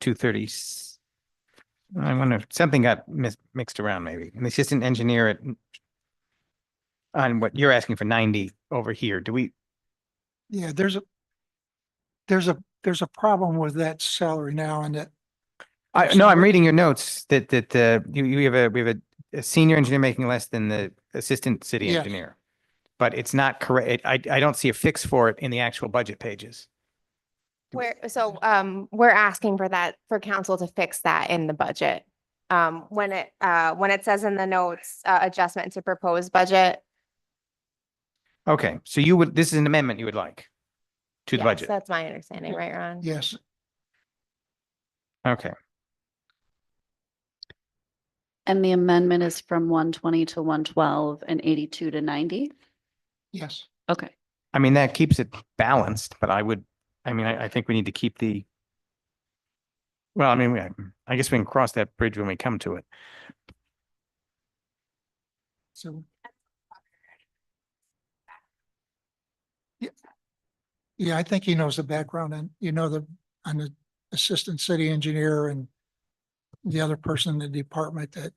two thirty. I wonder if something got mis- mixed around maybe, and the assistant engineer at on what you're asking for ninety over here, do we, Yeah, there's a, there's a, there's a problem with that salary now and that, I, no, I'm reading your notes that, that, uh, you, you have a, we have a, a senior engineer making less than the assistant city Yes. engineer. But it's not correct. I, I don't see a fix for it in the actual budget pages. We're, so, um, we're asking for that, for council to fix that in the budget. Um, when it, uh, when it says in the notes, uh, adjustment to proposed budget. Okay, so you would, this is an amendment you would like to the yes, budget. That's my understanding, right, Ron? yes, Okay, And the amendment is from one twenty to one twelve and eighty-two to ninety? yes. Okay. I mean, that keeps it balanced, but I would, I mean, I, I think we need to keep the well, I mean, we- I guess we can cross that bridge when we come to it. So. Yeah. Yeah, I think he knows the background and you know the, I'm the assistant city engineer and the other person in the department that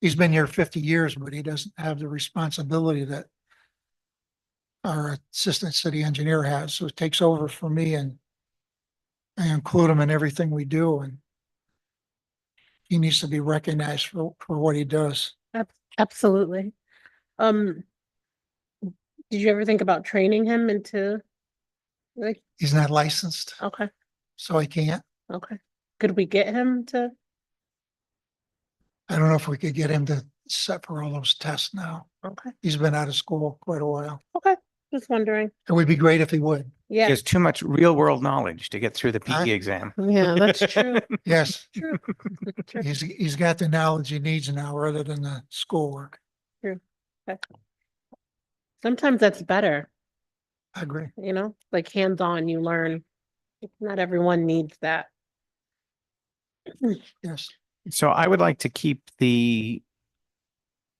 he's been here fifty years, but he doesn't have the responsibility that our assistant city engineer has, so it takes over for me and I include him in everything we do and he needs to be recognized for, for what he does. Absolutely. Um, did you ever think about training him into? Like, He's not licensed, okay, so I can't. okay. Could we get him to? I don't know if we could get him to set for all those tests now. Okay, He's been out of school quite a while. just wondering. It would be great if he would. Yeah. There's too much real world knowledge to get through the I- PE exam. Yeah, that's true. Yes, True. True. he's, he's got the knowledge he needs now rather than the schoolwork. Sometimes that's better, I agree. you know, like hands-on, you learn. Not everyone needs that. Yes, So I would like to keep the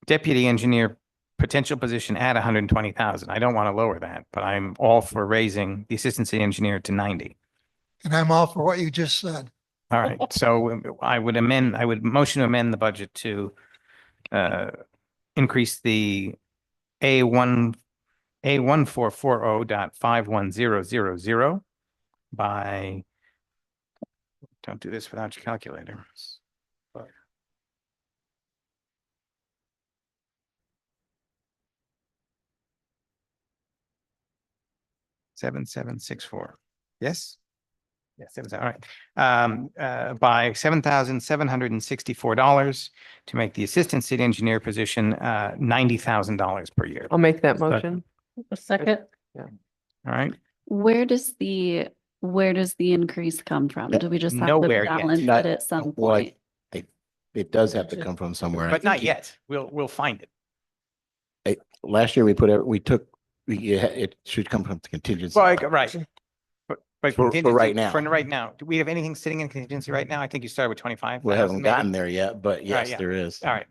deputy engineer potential position at hundred and twenty thousand. I don't want to lower that, but I'm all for raising the assistant city engineer to ninety. and I'm all for what you just said. All right, so um, I would amend, I would motion to amend the budget to uh, increase the A one, A one four four oh dot five one zero zero zero by, don't do this without your calculator. Seven, seven, six, four. Yes? Yes, seven, seven, all right um, uh, by seven thousand seven hundred and sixty-four dollars to make the assistant city engineer position, uh, ninety thousand dollars per year. Um, I'll make that Second. motion. A second, All right. Where does the, where does the increase come from? Do we just have to Nowhere yet. balance Not- it at some well, I- point? It does have to come from somewhere. I But not think yet. We'll, we'll find it. it- Last year, we put, it. we took, we- yeah, it should come from the contingency. Well, right. But, but. For- for contingency- right now. For right now. Do we have anything sitting in contingency right now? I think you started with twenty-five. We haven't gotten there yet, but yes, yeah. there is. All right.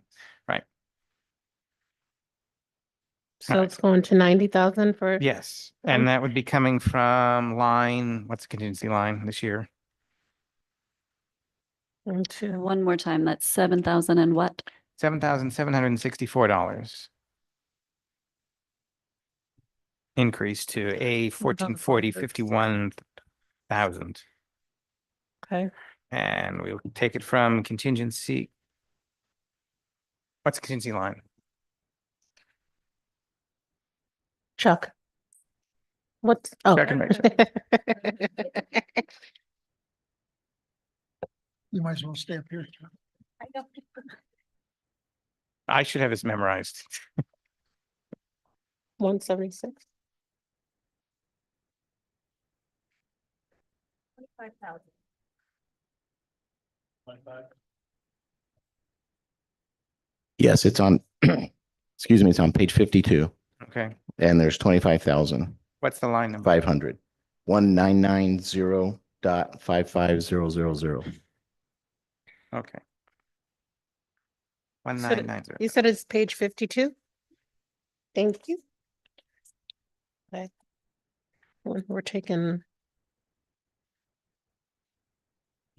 so it's going to ninety thousand for? Yes. Um, And that would be coming from line, what's the contingency line this year? and two. One more time, that's seven thousand and what? Seven thousand seven hundred and sixty-four dollars. Increase to a fourteen forty fifty-one thousand, Okay, and we'll take it from contingency. What's contingency line? Chuck. What's? oh. Chuck and You might as well stay up here. I should have this memorized. One seventy-six. Yes, it's on, excuse me, it's on page fifty-two Okay, and there's twenty-five thousand what's the line number? five hundred. One nine nine zero dot five five zero zero zero. Okay. One So the- nine nine zero. You said it's page fifty-two? Thank you. Okay. We're we're taking